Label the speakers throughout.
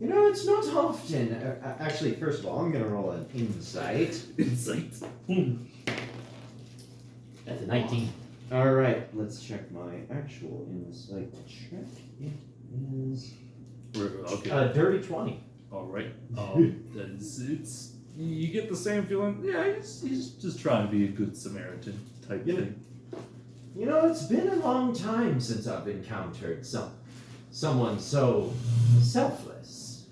Speaker 1: You know, it's not often. Uh, uh, actually, first of all, I'm gonna roll an insight.
Speaker 2: Insight.
Speaker 3: That's a 19.
Speaker 1: All right, let's check my actual insight check. It is
Speaker 2: We're- Okay.
Speaker 3: Uh, dirty 20.
Speaker 2: All right. Um, that's, it's you get the same feeling. Yeah, he's, he's just trying to be a good Samaritan type
Speaker 1: Yeah.
Speaker 2: thing.
Speaker 1: You know, it's been a long time since I've encountered some someone so selfless.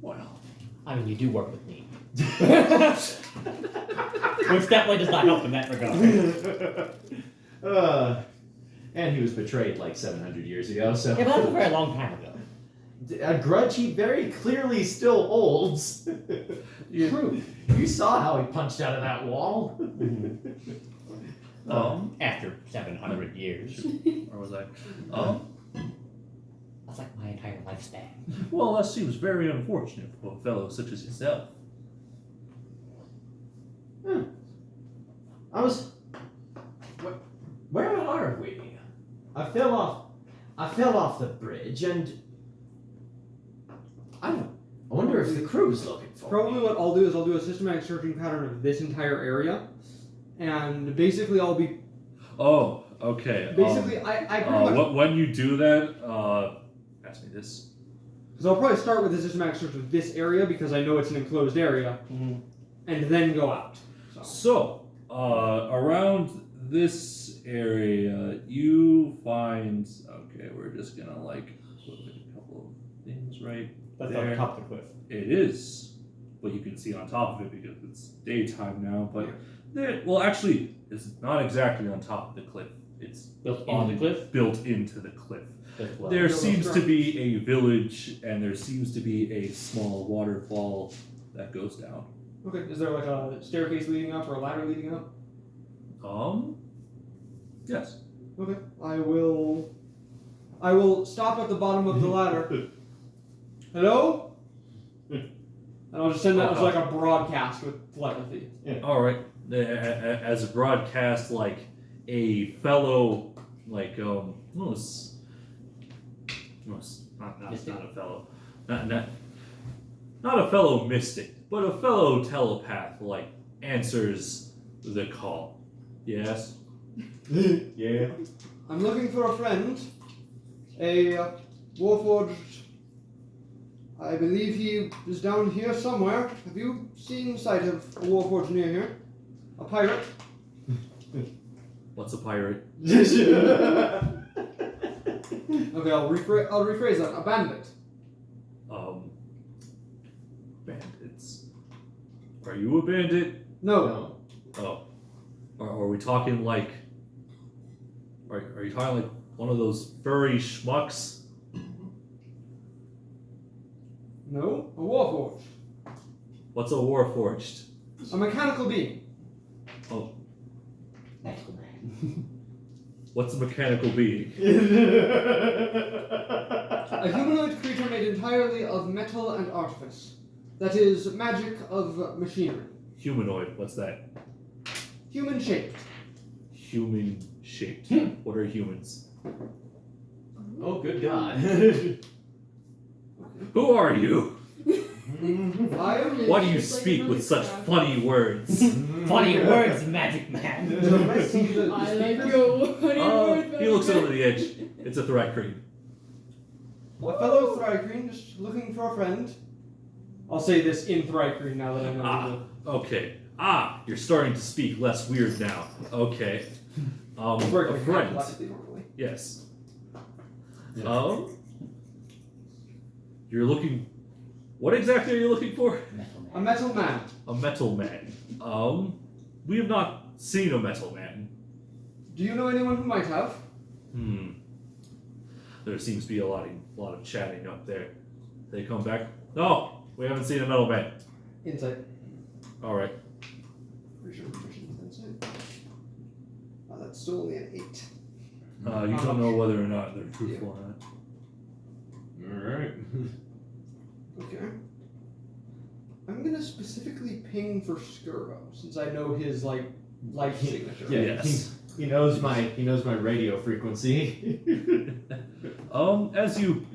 Speaker 2: Wow.
Speaker 3: I mean, you do work with me. Which definitely does not help in that regard.
Speaker 1: uh, and he was betrayed like 700 years ago, so
Speaker 3: Yeah, but that was a very long time ago.
Speaker 1: a grudge he very clearly still holds.
Speaker 2: Yeah.
Speaker 1: True. You saw how he punched out of that wall.
Speaker 2: Um,
Speaker 3: After 700 years.
Speaker 2: or was I? Um,
Speaker 3: That's like my entire lifespan.
Speaker 2: well, that seems very unfortunate for a fellow such as yourself.
Speaker 1: I was. Where, where are we? I fell off. I fell off the bridge, and I don't. I wonder if the crew's looking for
Speaker 4: Probably
Speaker 1: me.
Speaker 4: what I'll do is I'll do a systematic searching pattern of this entire area, and basically I'll be
Speaker 2: Oh, okay. um,
Speaker 4: basically I I
Speaker 2: uh,
Speaker 4: pretty much
Speaker 2: wh- when you do that, uh, ask me this.
Speaker 4: because I'll probably start with a systematic search of this area because I know it's an enclosed area,
Speaker 3: Mhm.
Speaker 4: and then go out. So
Speaker 2: So, uh, around this area, you find. Okay, we're just gonna like put like a couple of things right
Speaker 3: That's
Speaker 2: There.
Speaker 3: on top of the cliff.
Speaker 2: It is, but you can see on top of it because it's daytime now. But there, well, actually, it's not exactly on top of the cliff. It's
Speaker 3: Built
Speaker 2: on
Speaker 3: on the cliff?
Speaker 2: built into the cliff.
Speaker 3: As well.
Speaker 2: there
Speaker 4: Built on
Speaker 2: seems to
Speaker 4: strong.
Speaker 2: be a village, and there seems to be a small waterfall that goes down.
Speaker 4: okay, is there like a staircase leading up or a ladder leading up?
Speaker 2: Um, yes.
Speaker 4: Okay, I will. I will stop at the bottom of the ladder. Hello. and I'll just send that as like a broadcast with telepathy.
Speaker 2: All right. A- a- a- As a broadcast, like a fellow, like um, no, it's, no, it's not, not,
Speaker 3: Mystic?
Speaker 2: not a fellow, not, not not a fellow mystic, but a fellow telepath, like answers the call. Yes.
Speaker 1: yeah.
Speaker 4: I'm looking for a friend, a uh, warforged. I believe he is down here somewhere. Have you seen sight of a warforged near here? A pirate?
Speaker 2: What's a pirate?
Speaker 4: Okay, I'll rephrase. I'll rephrase that. A bandit.
Speaker 2: Um, bandits. Are you a bandit?
Speaker 4: No,
Speaker 1: no.
Speaker 2: Oh, are, are we talking like? Are, are you talking like one of those furry schmucks?
Speaker 4: no, a warforged,
Speaker 2: What's a warforged?
Speaker 4: a mechanical being.
Speaker 3: Magical man.
Speaker 2: What's a mechanical being?
Speaker 4: A humanoid creature made entirely of metal and artifice. That is magic of machinery.
Speaker 2: Humanoid. What's that?
Speaker 4: Human shaped.
Speaker 2: Human shaped. What are humans?
Speaker 1: oh, good God.
Speaker 2: Who are you?
Speaker 4: I am.
Speaker 2: Why do you speak with such funny words?
Speaker 3: Funny words, magic man.
Speaker 4: Did I see the- the
Speaker 5: I like
Speaker 4: speakers?
Speaker 5: your wooden
Speaker 2: Oh,
Speaker 5: word,
Speaker 2: he looks
Speaker 5: but-
Speaker 2: over the edge. It's a thrycreen.
Speaker 4: A fellow Thrycreen just looking for a friend. I'll say this in Thrycreen now that I know.
Speaker 2: Ah, okay. Ah, you're starting to speak less weird now. Okay. Um,
Speaker 4: the
Speaker 2: a friend.
Speaker 4: telepathy normally.
Speaker 2: Yes.
Speaker 1: Yeah.
Speaker 2: Um, you're looking. What exactly are you looking for?
Speaker 3: Metal
Speaker 4: A
Speaker 3: man.
Speaker 4: metal man.
Speaker 2: A metal man. Um, we have not seen a metal man.
Speaker 4: Do you know anyone who might have?
Speaker 2: Hmm. There seems to be a lot of lot of chatting up there. They come back. No, we haven't seen a metal man.
Speaker 4: Insight.
Speaker 2: All right.
Speaker 4: Pretty sure proficient with insight. Oh, that's still only an eight.
Speaker 2: Uh, you don't know whether or not they're truthful or not.
Speaker 1: Alright.
Speaker 4: Okay. I'm gonna specifically ping for Skurvo since I know his like life signature.
Speaker 1: Yeah,
Speaker 2: Yes.
Speaker 1: he, he knows my he knows my radio frequency.
Speaker 2: Um, as you